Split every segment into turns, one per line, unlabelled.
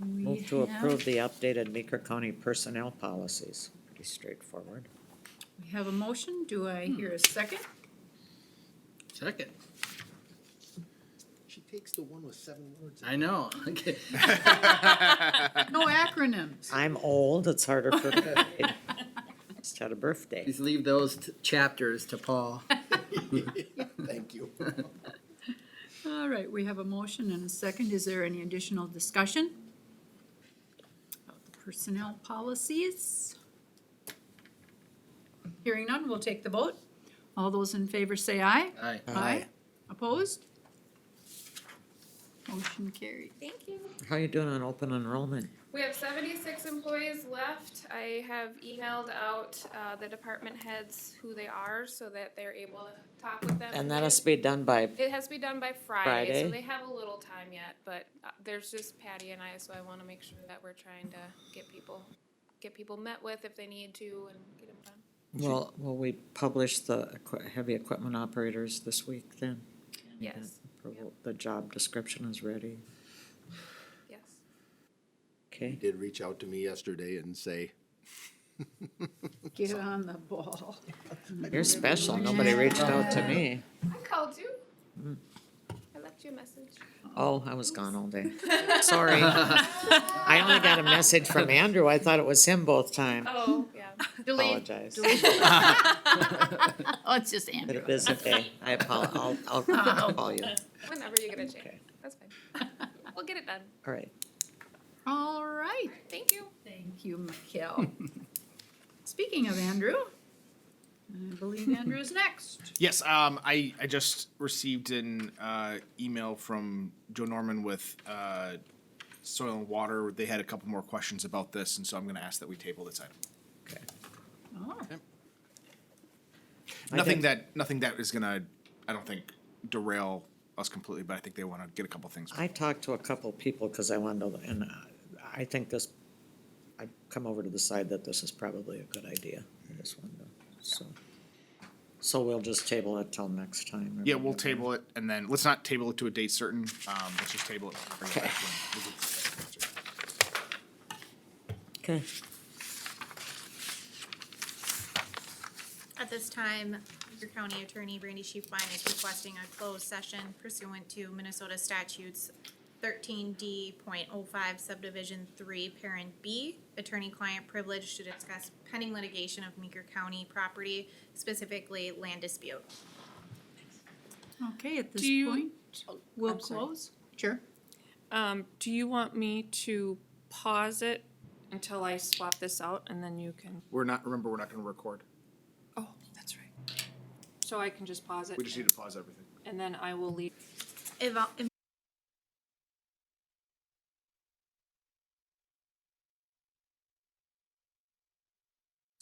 We
Move to
have-
approve the updated Meeker County personnel policies. Pretty straightforward.
We have a motion. Do I hear a second?
Second.
She takes the one with seven words.
I know. Okay.
No acronyms.
I'm old, it's harder for me. Just had a birthday.
Please leave those t- chapters to Paul.
Thank you.
All right, we have a motion and a second. Is there any additional discussion? About the personnel policies? Hearing none, we'll take the vote. All those in favor say aye.
Aye.
Aye. Opposed? Motion carried.
Thank you.
How you doing on open enrollment?
We have seventy-six employees left. I have emailed out, uh, the department heads who they are so that they're able to talk with them.
And that has to be done by,
It has to be done by Friday,
Friday?
so they have a little time yet, but uh, there's just Patty and I, so I wanna make sure that we're trying to get people, get people met with if they need to and get them done.
well, will we publish the equi- heavy equipment operators this week then?
Yes,
Approval- The job description is ready.
yes.
Okay,
Did reach out to me yesterday and say,
Get on the ball.
you're special. Nobody reached out to me.
I called you.
Mm.
I left you a message.
Oh, I was gone all day. Sorry. I only got a message from Andrew. I thought it was him both times.
Oh, yeah.
Delete.
Apologize.
Oh, it's just
But
Andrew.
it is okay. I apologize. I'll, I'll call you.
Whenever you get a
Okay.
chance. That's fine. We'll get it done.
All right.
All right.
Thank you.
Thank you, Mikel. Speaking of Andrew, I believe Andrew is next.
Yes, um, I, I just received an uh, email from Joe Norman with uh, soil and water. They had a couple more questions about this, and so I'm going to ask that we table this item.
Okay.
Oh,
I
Nothing
think-
that nothing that is going to, I don't think, derail us completely, but I think they want to get a couple things.
I talked to a couple people because I wanted to, and uh, I think this, I've come over to the side that this is probably a good idea. I just wanted to, so. So we'll just table it till next time.
yeah, we'll table it, and then let's not table it to a date certain. Um, let's just table it. and bring it back when we get the answer.
Okay.
At this time, your county attorney, Brandy Sheepline, is requesting a closed session pursuant to Minnesota statutes thirteen D point oh five subdivision three, parent B, attorney-client privilege to discuss pending litigation of Meeker County property, specifically land dispute.
okay, at this
Do you-
point, we'll
I'm sorry.
close. Oh, Sure.
Um, do you want me to pause it until I swap this out and then you can,
We're not. Remember, we're not going to record.
oh, that's right. So I can just pause it
We just need to pause everything.
and then I will leave.
Evol-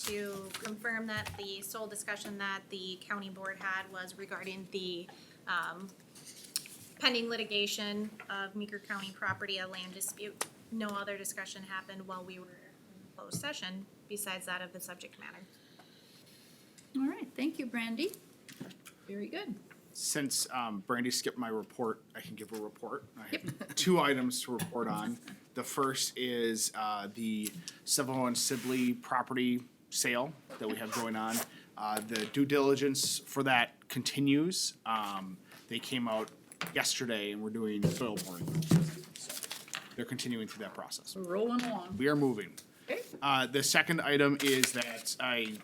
To confirm that the sole discussion that the county board had was regarding the um, pending litigation of Meeker County property, a land dispute. No other discussion happened while we were in closed session besides that of the subject matter.
All right, thank you, Brandy. Very good.
since um, Brandy skipped my report, I can give a report. I have two items to report on. The first is uh, the Sevel and Sibley property sale that we have going on. Uh, The due diligence for that continues. Um, They came out yesterday and we're doing soil boring. They're continuing through that process.
We're rolling along.
We are moving.
Okay.
Uh, the second item is that I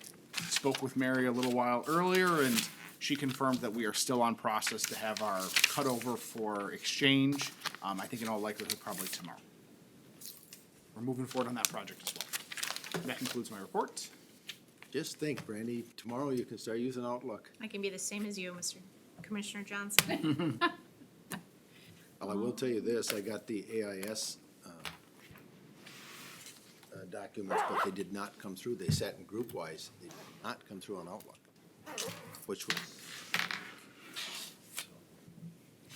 spoke with Mary a little while earlier and she confirmed that we are still on process to have our cutover for exchange. Um, I think in all likelihood, probably tomorrow. We're moving forward on that project as well. That concludes my report.
just think, Brandy, tomorrow you can start using Outlook.
I can be the same as you, Mr. Commissioner Johnson.
Well, I will tell you this, I got the AIS, uh, uh, documents, but they did not come through. They sat in group wise. They did not come through on Outlook, which was,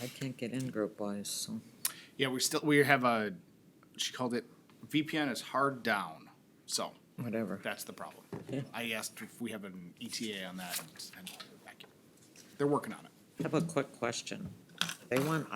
I can't get in group wise, so.
Yeah, we still, we have a, she called it VPN is hard down, so
Whatever.
that's the problem. I asked if we have an E ETA on that and, and they're working on it.
I have a quick question. They want